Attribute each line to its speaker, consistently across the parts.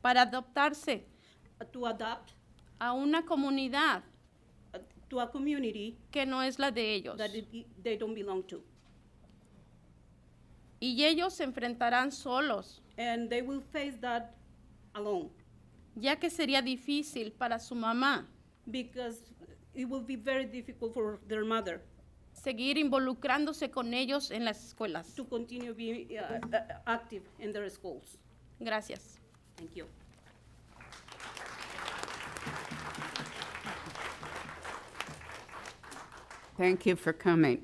Speaker 1: para adaptarse
Speaker 2: uh, to adapt
Speaker 1: a una comunidad
Speaker 2: uh, to a community
Speaker 1: que no es la de ellos.
Speaker 2: that it- they don't belong to.
Speaker 1: Y ellos se enfrentarán solos,
Speaker 2: And they will face that alone
Speaker 1: ya que sería difícil para su mamá
Speaker 2: because it will be very difficult for their mother
Speaker 1: seguir involucrándose con ellos en las escuelas.
Speaker 2: to continue being uh, uh, active in their schools.
Speaker 1: Gracias.
Speaker 2: Thank you.
Speaker 3: Thank you for coming.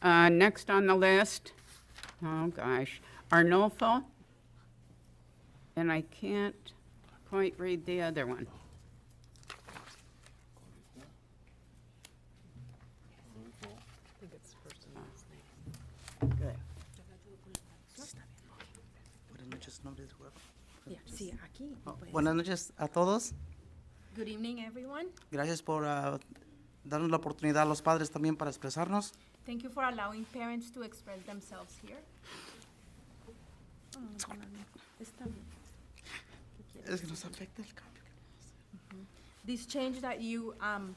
Speaker 3: Uh, Next on the list, oh gosh, Arnolfo. And I can't quite read the other one. Good.
Speaker 4: Buenas noches, nombre de juego.
Speaker 5: Sí, aquí. pues.
Speaker 4: Buenas noches a todos.
Speaker 5: Oh. Good evening, everyone.
Speaker 4: Gracias por ah, darnos la oportunidad a los padres también para expresarnos.
Speaker 5: Thank you for allowing parents to express themselves here.
Speaker 4: Es que nos afecta el cambio.
Speaker 5: This change that you um,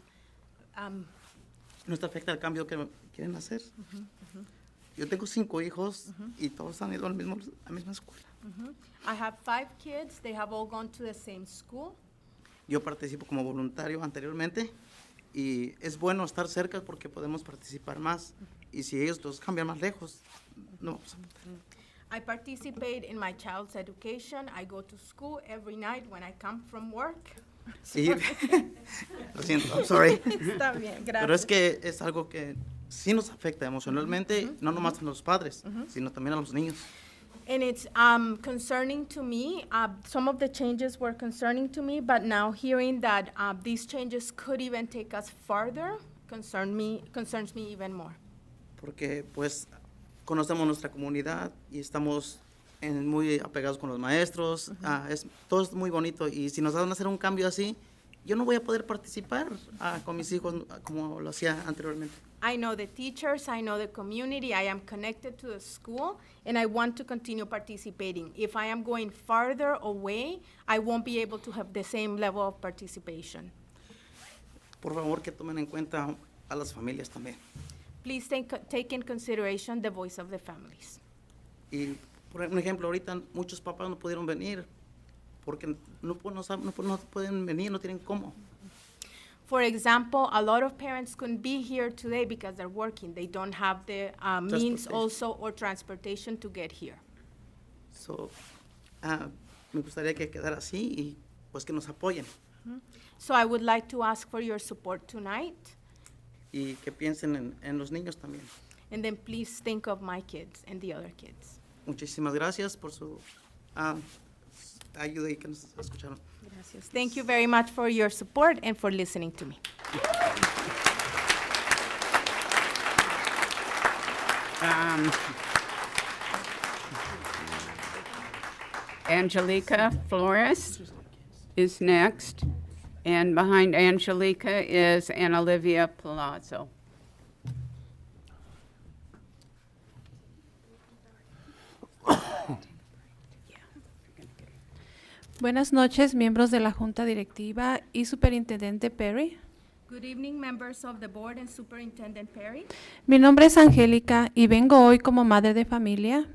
Speaker 5: um,
Speaker 4: Nos afecta el cambio que quieren hacer. Yo tengo cinco hijos y todos han ido al mismo, a la misma escuela.
Speaker 5: I have five kids. They have all gone to the same school.
Speaker 4: Yo participo como voluntario anteriormente y es bueno estar cerca porque podemos participar más. Y si ellos los cambian más lejos, no vamos a
Speaker 5: I participate in my child's education. I go to school every night when I come from work.
Speaker 4: Sí. pues, Lo siento, I'm sorry.
Speaker 5: Está bien,
Speaker 4: Pero es
Speaker 5: gracias.
Speaker 4: que es algo que sí nos afecta emocionalmente, no nomás a los padres, sino también a los niños.
Speaker 5: And it's um, concerning to me. Uh, some of the changes were concerning to me, but now hearing that uh, these changes could even take us farther concern me, concerns me even more.
Speaker 4: Porque pues conocemos nuestra comunidad y estamos en- muy apegados con los maestros, ah, es, todo es muy bonito y si nos van a hacer un cambio así, yo no voy a poder participar ah, con mis hijos ah, como lo hacía anteriormente.
Speaker 5: I know the teachers, I know the community, I am connected to the school, and I want to continue participating. If I am going farther away, I won't be able to have the same level of participation.
Speaker 4: Por favor que tomen en cuenta a las familias también.
Speaker 5: Please take, take in consideration the voice of the families.
Speaker 4: Y por un ejemplo, ahorita muchos papás no pudieron venir porque no, pu- no sab- no pu- no pueden venir, no tienen cómo.
Speaker 5: For example, a lot of parents couldn't be here today because they're working. They don't have the uh, means
Speaker 4: Transportation.
Speaker 5: also or transportation to get here.
Speaker 4: So, ah, me gustaría que quedara así y pues que nos apoyen
Speaker 5: So I would like to ask for your support tonight,
Speaker 4: y que piensen en, en los niños también.
Speaker 5: and then please think of my kids and the other kids.
Speaker 4: Muchísimas gracias por su ah, ayuda y que nos escucharon.
Speaker 5: Thank you very much for your support and for listening to me.
Speaker 3: Um, Angelica Flores is next, and behind Angelica is Ana Olivia Palazzo.
Speaker 6: Buenas noches, miembros de la Junta Directiva y Superintendente Perry.
Speaker 5: Good evening, members of the board and Superintendent Perry.
Speaker 6: Mi nombre es Angélica y vengo hoy como madre de familia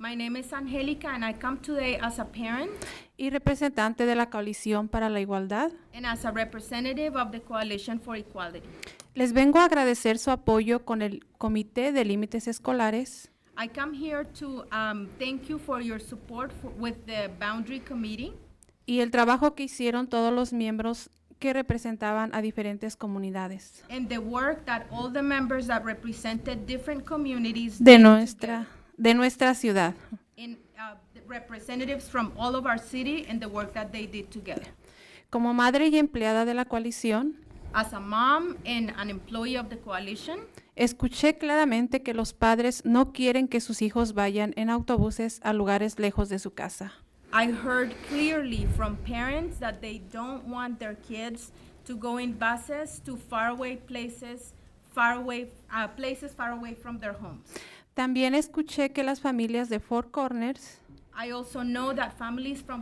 Speaker 5: My name is Angelica, and I come today as a parent
Speaker 6: y representante de la Coalición para la Igualdad.
Speaker 5: and as a representative of the Coalition for Equality.
Speaker 6: Les vengo a agradecer su apoyo con el Comité de Límites Escolares
Speaker 5: I come here to um, thank you for your support for, with the Boundary Committee
Speaker 6: y el trabajo que hicieron todos los miembros que representaban a diferentes comunidades
Speaker 5: and the work that all the members that represented different communities
Speaker 6: de
Speaker 5: did
Speaker 6: nuestra,
Speaker 5: together.
Speaker 6: de nuestra ciudad.
Speaker 5: and uh, the representatives from all of our city and the work that they did together.
Speaker 6: Como madre y empleada de la coalición,
Speaker 5: As a mom and an employee of the coalition,
Speaker 6: Escuché claramente que los padres no quieren que sus hijos vayan en autobuses a lugares lejos de su casa.
Speaker 5: I heard clearly from parents that they don't want their kids to go in buses to faraway places, faraway uh, places far away from their homes.
Speaker 6: También escuché que las familias de Four Corners
Speaker 5: I also know that families from